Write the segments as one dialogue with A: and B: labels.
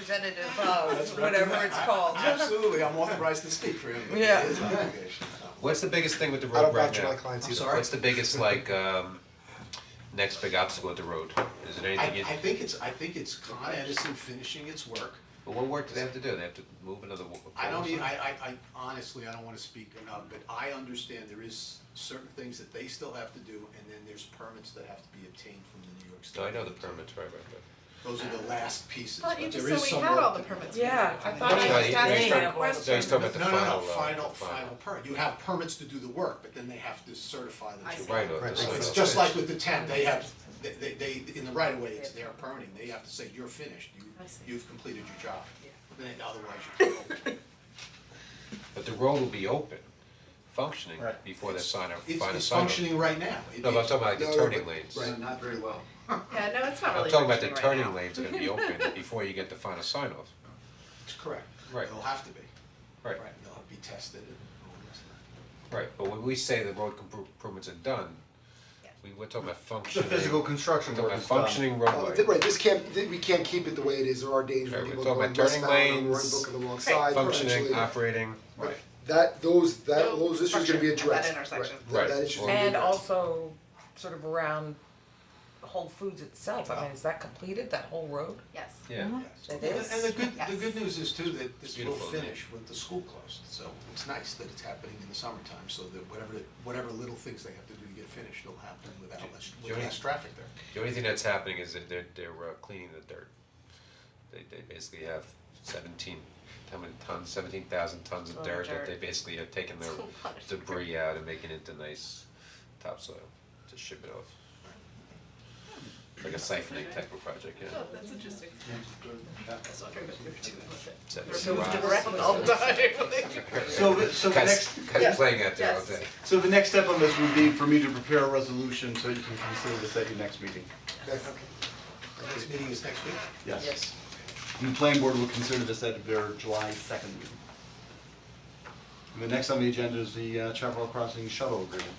A: representative of
B: That's
A: whatever
B: recommend-
A: it's called.
B: Absolutely, I'm authorized to speak for him, but
A: Yeah.
B: it is an obligation, it's not-
C: What's the biggest thing with the
D: I
C: road
D: don't
C: right
D: vouch
C: now?
D: my clients
B: I'm
D: either.
B: sorry.
C: What's the biggest like um next big obstacle at the road? Is it
E: I,
C: anything you,
E: I think it's, I think it's Con Edison finishing its work.
C: but what work do they have to do? They have to move another wa-
E: I don't
C: pole or
E: even,
C: something?
E: I, I, I honestly, I don't wanna speak enough, but I understand there is certain things that they still have to do, and then there's permits that have to be obtained from the New York State.
C: No, I know the permits, right, right, right.
E: Those are the last pieces, but
F: Thought
E: there
F: you
E: is some
F: just
E: work.
F: said we had all the permits.
A: Yeah, I thought
C: No,
A: I just
C: he- no, he's
A: asked
C: talking-
A: a question.
C: No, he's talking about the
E: No,
C: final,
E: no, no,
C: uh,
E: final,
C: the final.
E: final permit, you have permits to do the work, but then they have to certify
F: I
E: that
F: see.
E: you.
C: Right, or
D: Right,
C: the
D: so
C: site
E: It's
C: is
E: just like
C: finished.
E: with the tent, they have, they, they, they- in the right of way, it's their permitting, they have to say, you're finished, you,
F: I see.
E: you've completed your job.
F: Yeah.
E: Then otherwise you can't open.
C: But the road will be open, functioning
G: Right.
C: before that sign up,
E: It's,
C: final
E: it's
C: sign up.
E: functioning right now. It-
C: No, but I'm talking about like
D: No,
C: the
D: no,
C: turning
D: but-
C: lanes.
D: right.
G: Not very well.
F: Yeah, no, it's not
C: I'm
F: really
C: talking about the
F: functioning right now.
C: turning lanes are gonna be open before you get the final sign off.
E: It's correct.
C: Right.
E: It'll have to be.
C: Right,
E: It'll be tested and all the rest of that.
C: right, but when we say the road compro- improvements are done, we, we're talking about
G: The
C: functioning.
G: physical construction
C: We're
G: work
C: talking
G: is
C: about
G: done.
C: functioning
D: Oh,
C: roadway.
D: th- right, this can't, th- we can't keep it the way it is, there are dangers
C: Right, we're
D: when people
C: talking
D: going
C: about turning
D: westbound and
C: lanes,
D: running book on the wrong side,
C: functioning, uh,
D: potentially.
C: operating, right,
D: That, those, that,
F: No
D: those issues are gonna be
F: obstruction at
D: addressed,
F: that
D: right,
F: intersection.
D: that,
C: Right.
D: that issue's gonna be
A: And
D: addressed.
A: also sort of around Whole Foods itself, I mean, is that completed, that whole road?
F: Yes.
C: yeah.
E: Yes.
A: It is.
E: And the good, the
F: Yes.
E: good news is too, that this will
C: Beautiful, isn't it?
E: finish with the school closed, so it's nice that it's happening in the summertime, so that whatever, whatever little things they have to do to get finished, it'll happen without less, with
C: Jody?
E: less traffic there.
C: The only thing that's happening is that they're, they're uh, cleaning the dirt. They, they basically have seventeen, how many tons, seventeen thousand tons of
F: Ton of
C: dirt that
F: dirt.
C: they basically have taken their
F: It's a lot of dirt.
C: debris out and making it into nice topsoil to ship it off. Like a siphoning type of project, yeah.
F: Oh, that's interesting.
C: Is
F: Yes.
C: that-
G: So, the- so the
C: Guys,
G: next,
C: guys playing out there all
F: Yes.
C: day.
G: so the next step on this would be for me to prepare a resolution so you can consider this at your next meeting.
D: That-
E: The next meeting is next week.
G: Yes. And the planning board will consider this at their July second meeting. And the next on the agenda is the uh, Chaparral Crossing shuttle agreement.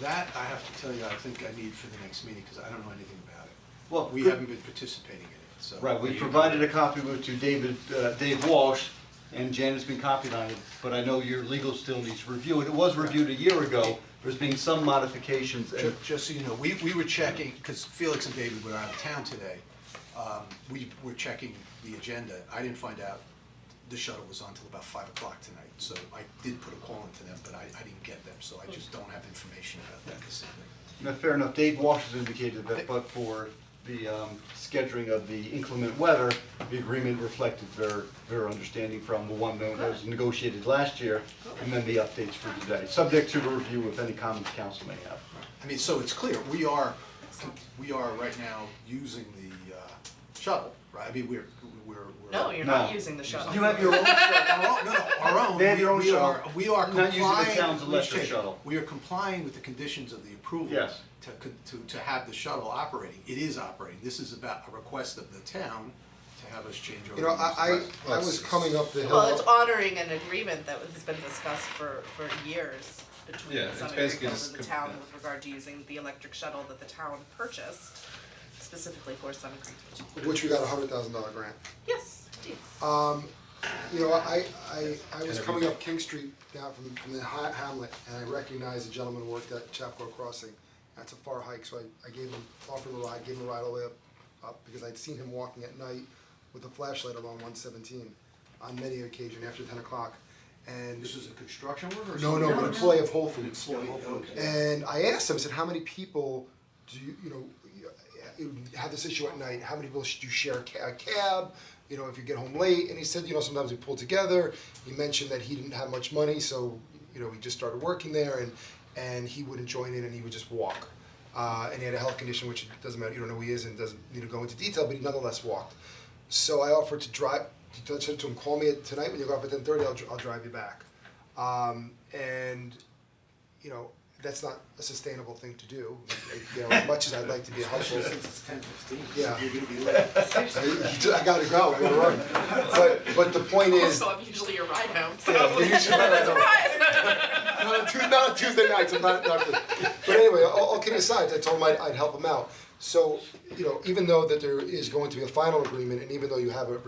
E: That, I have to tell you, I think I need for the next meeting, cause I don't know anything about it.
G: Well,
E: We
G: good-
E: haven't been participating in it, so.
G: Right, we provided a copy with- to David, uh, Dave Walsh, and Janet's been copied on it, but I know your legal still needs to review it. It was reviewed a year ago, there's been some modifications,
E: Ju-
G: and
E: Just so you know, we, we were checking, because Felix and David were out of town today, um, we were checking the agenda. I didn't find out the shuttle was on till about five o'clock tonight, so I did put a call into them, but I, I didn't get them, so I just don't have information about that this evening.
G: No, fair enough, Dave Walsh has indicated that but for the um scheduling of the inclement weather, the agreement reflected their their understanding from the one that was negotiated last year, and then the updates for today, subject to the review if any comments council may have.
E: I mean, so it's clear, we are, we are right now using the, uh, shuttle, right? I mean, we're, we're, we're.
F: No, you're
G: No.
F: not using the shuttle.
G: You have your own
E: Our own- no, no, our own,
G: They have your own
E: we, we are,
G: shuttle.
E: we are
G: Not using the
E: complying,
G: town's
E: we
G: electric
E: should-
G: shuttle.
E: we are complying with the conditions of the approval.
G: Yes.
E: To, con- to, to have the shuttle operating, it is operating, this is about a request of the town to have us change over.
D: You know, I,
E: these-
D: I, I was coming up the hill.
F: Well, it's honoring an agreement that was- has been discussed for, for years between
C: Yeah,
F: the
C: it's
F: Sunbury
C: basically
F: Hills
C: just
F: and the
C: com-
F: town
C: yeah.
F: with regard to using the electric shuttle that the town purchased specifically for Summit Creek.
D: Which we got a hundred thousand dollar grant.
F: Yes, indeed.
D: You know, I, I, I was coming up King Street down from, from the Ha- Hamlet, and I recognized a gentleman who worked at Chapco Crossing. That's a far hike, so I, I gave him, offered him a ride, gave him a ride all the way up, up, because I'd seen him walking at night with a flashlight along one seventeen on many occasions after ten o'clock, and.
E: This is a construction worker or
D: No,
E: something?
D: no, an employee of Whole Foods.
E: Employee, okay.
D: And I asked him, I said, how many people do you, you know, you have this issue at night, how many people should you share a ca- a cab? You know, if you get home late, and he said, you know, sometimes we pull together, he mentioned that he didn't have much money, so, you know, he just started working there and, and he wouldn't join in and he would just walk. Uh, and he had a health condition, which it doesn't matter, you don't know who he is and doesn't need to go into detail, but he nonetheless walked. So I offered to drive, to, to, to him, call me tonight when you go up at ten thirty, I'll, dr- I'll drive you back. Um, and you know, that's not a sustainable thing to do. You know, as much as I'd like to be a helpful,
E: Since it's ten fifteen,
D: Yeah.
E: you're gonna be late.
D: I gotta go, I gotta run. But, but the point is,
F: So I'm usually your ride home, so.
D: not on Tuesday, not on Tuesday nights, I'm not, not, but anyway, all, all kidding aside, I told him I'd, I'd help him out. So, you know, even though that there is going to be a final agreement and even though you have a